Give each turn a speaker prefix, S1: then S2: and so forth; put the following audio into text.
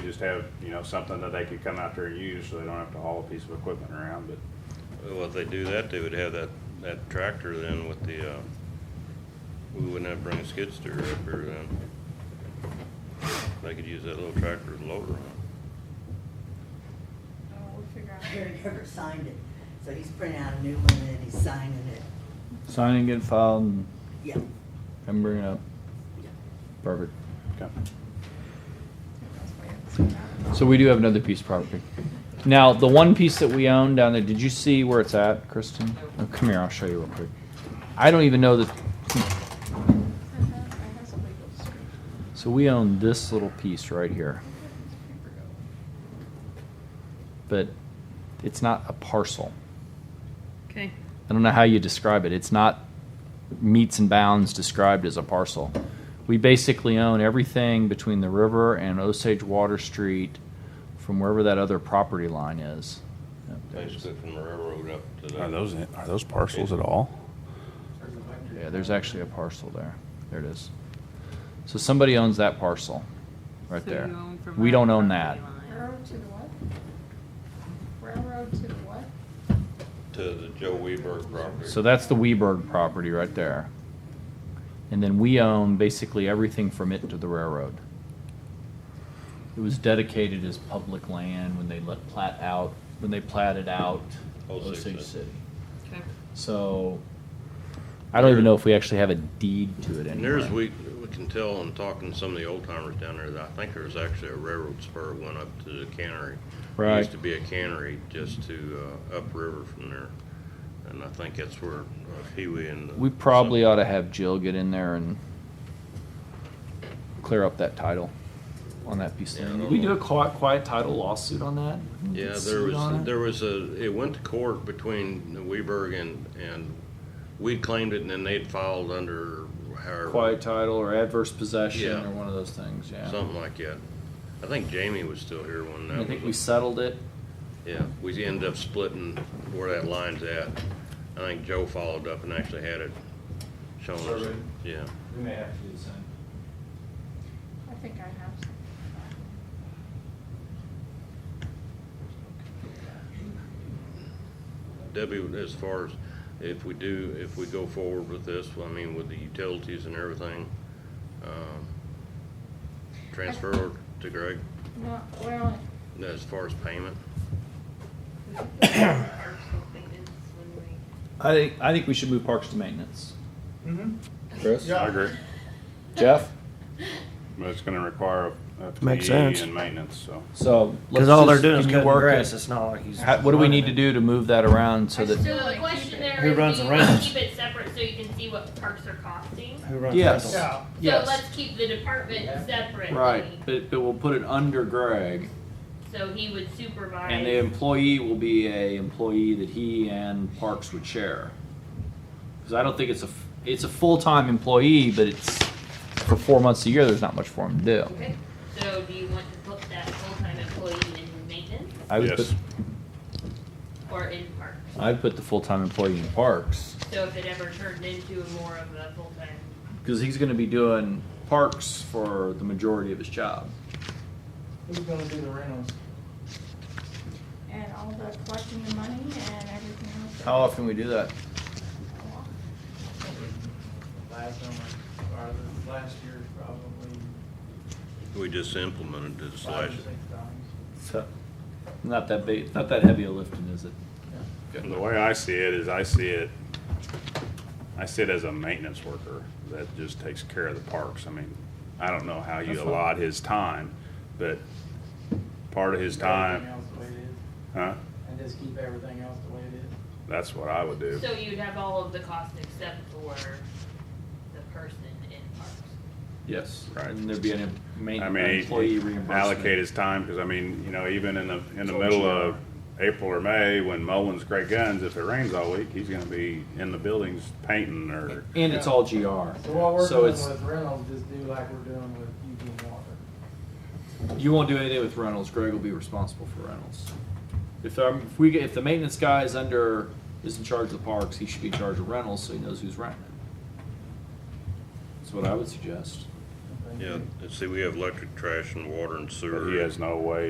S1: just have, you know, something that they could come out there and use, so they don't have to haul a piece of equipment around, but
S2: Well, if they do that, they would have that, that tractor then with the, uh, we wouldn't have to bring a skid steer up here then. They could use that little tractor with a loader on it.
S3: Oh, we'll figure out.
S4: Gary never signed it, so he's printing out a new one and he's signing it.
S5: Signing, get filed, and
S4: Yeah,
S5: come bring it up.
S4: yeah.
S5: Perfect.
S1: okay.
S3: That's what we have to figure out.
S5: So we do have another piece of property. Now, the one piece that we own down there, did you see where it's at, Kristen? Oh, come here, I'll show you real quick. I don't even know that.
S3: I have, I have some legal description.
S5: So we own this little piece right here,
S3: Where did this paper go?
S5: but it's not a parcel.
S6: Okay.
S5: I don't know how you describe it. It's not meets and bounds described as a parcel. We basically own everything between the river and Osage Water Street from wherever that other property line is. Yep, there it is.
S2: Basically from the railroad up to the.
S1: Are those, are those parcels at all?
S5: Yeah, there's actually a parcel there. There it is. So somebody owns that parcel right
S6: So
S5: there.
S6: you own from
S5: We
S6: that
S5: don't own that.
S6: property line.
S3: Railroad to the what? Railroad to the what?
S2: To the Joe Weberg property.
S5: So that's the Weberg property right there. And then we own basically everything from it to the railroad. It was dedicated as public land when they let plat out, when they platted out
S2: Osage
S5: Osage
S2: City.
S5: City.
S6: Okay.
S5: So I don't even know if we actually have a deed to it
S2: And
S5: anymore.
S2: there's, we, we can tell in talking to some of the old timers down there that I think there was actually a railroad spur went up to the cannery. There
S5: Right.
S2: Used to be a cannery just to, uh, upriver from there. And I think that's where uh, Huey and. the-
S5: We probably ought to have Jill get in there and clear up that title on that piece.
S2: Yeah, I
S5: there.
S2: don't
S5: Did we
S2: know.
S5: do a quiet, quiet title lawsuit on that?
S2: Yeah,
S5: Get
S2: there
S5: sued on
S2: was,
S5: it?
S2: there was a, it went to court between Weberg and, and we claimed it and then they'd filed under however.
S5: Quiet title or adverse possession
S2: Yeah.
S5: or one of those things, yeah.
S2: Something like that. I think Jamie was still here when that
S5: I
S2: was.
S5: think we settled it.
S2: Yeah, we ended up splitting where that line's at. I think Joe followed up and actually had it shown us.
S7: Surveyed.
S2: Yeah,
S7: We may have to do the same.
S3: I think I have some.
S2: Debbie, as far as if we do, if we go forward with this, I mean, with the utilities and everything, um, transfer to Greg
S3: No, well,
S2: as far as payment.
S5: I think, I think we should move parks to maintenance.
S7: Chris?
S1: I agree.
S5: Jeff?
S1: But it's gonna require a- a
S8: Makes
S1: fee
S8: sense.
S1: and maintenance, so.
S5: So.
S8: Because
S5: let's
S8: all they're
S5: just-
S8: doing is
S5: can you
S8: cutting
S5: work
S8: grass,
S5: it?
S8: it's not like he's.
S5: How- What do we need to do to move that around so
S3: I
S5: that,
S3: still-
S9: So the question there
S8: Who
S9: is,
S8: runs
S9: do you
S8: the
S9: wanna
S8: rentals?
S9: keep it separate so you can see what parks are costing?
S8: Who runs
S5: Yes.
S8: rentals?
S7: Yeah,
S5: Yes.
S9: So let's keep the department separate.
S5: right, but, but we'll put it under Greg.
S9: So he would supervise.
S5: And the employee will be a employee that he and Parks would share. Because I don't think it's a, f- it's a full-time employee, but it's, for four months a year, there's not much for him to do.
S9: Okay, so do you want to put that full-time employee in maintenance
S5: I would
S1: Yes.
S5: put,
S9: or in parks?
S5: I'd put the full-time employee in Parks,
S9: So if it ever turned into more of a full-time,
S5: because he's gonna be doing Parks for the majority of his job.
S7: who's gonna do the rentals?
S3: and all the collecting the money and everything else.
S5: How often we do that?
S7: Last summer, or the last year, probably.
S2: We just implemented this
S7: five or
S2: last,
S7: six times.
S5: So, Not that big, not that heavy a lifting, is it?
S1: The way I see it is I see it, I see it as a maintenance worker that just takes care of the parks. I mean, I don't know how
S5: That's
S1: you
S5: fine.
S1: allot his time, but part of his
S7: Everything
S1: time,
S7: else the way it is,
S1: huh?
S7: And just keep everything else the way it is.
S1: That's what I would do.
S9: so you'd have all of the costs except for the person in parks.
S5: Yes.
S1: Right.
S5: And there'd be an em- main
S1: I mean,
S5: employee reimbursement.
S1: allocate his time, because I mean, you know, even in the, in the
S5: So we
S1: middle
S5: should-
S1: of April or May, when mowing's great guns, if it rains all week, he's gonna be in the buildings painting or,
S5: And it's all GR.
S7: So what we're
S5: So
S7: doing
S5: it's-
S7: with rentals, just do like we're doing with Eugene Water.
S5: You won't do anything with Reynolds. Greg will be responsible for Reynolds. If um, if we get, if the maintenance guy is under is in charge of the parks, he should be in charge of Reynolds so he knows who's renting. it. That's what I would suggest.
S7: I think
S2: Yeah, see, we have electric, trash, and water and sewer.
S1: But he has no way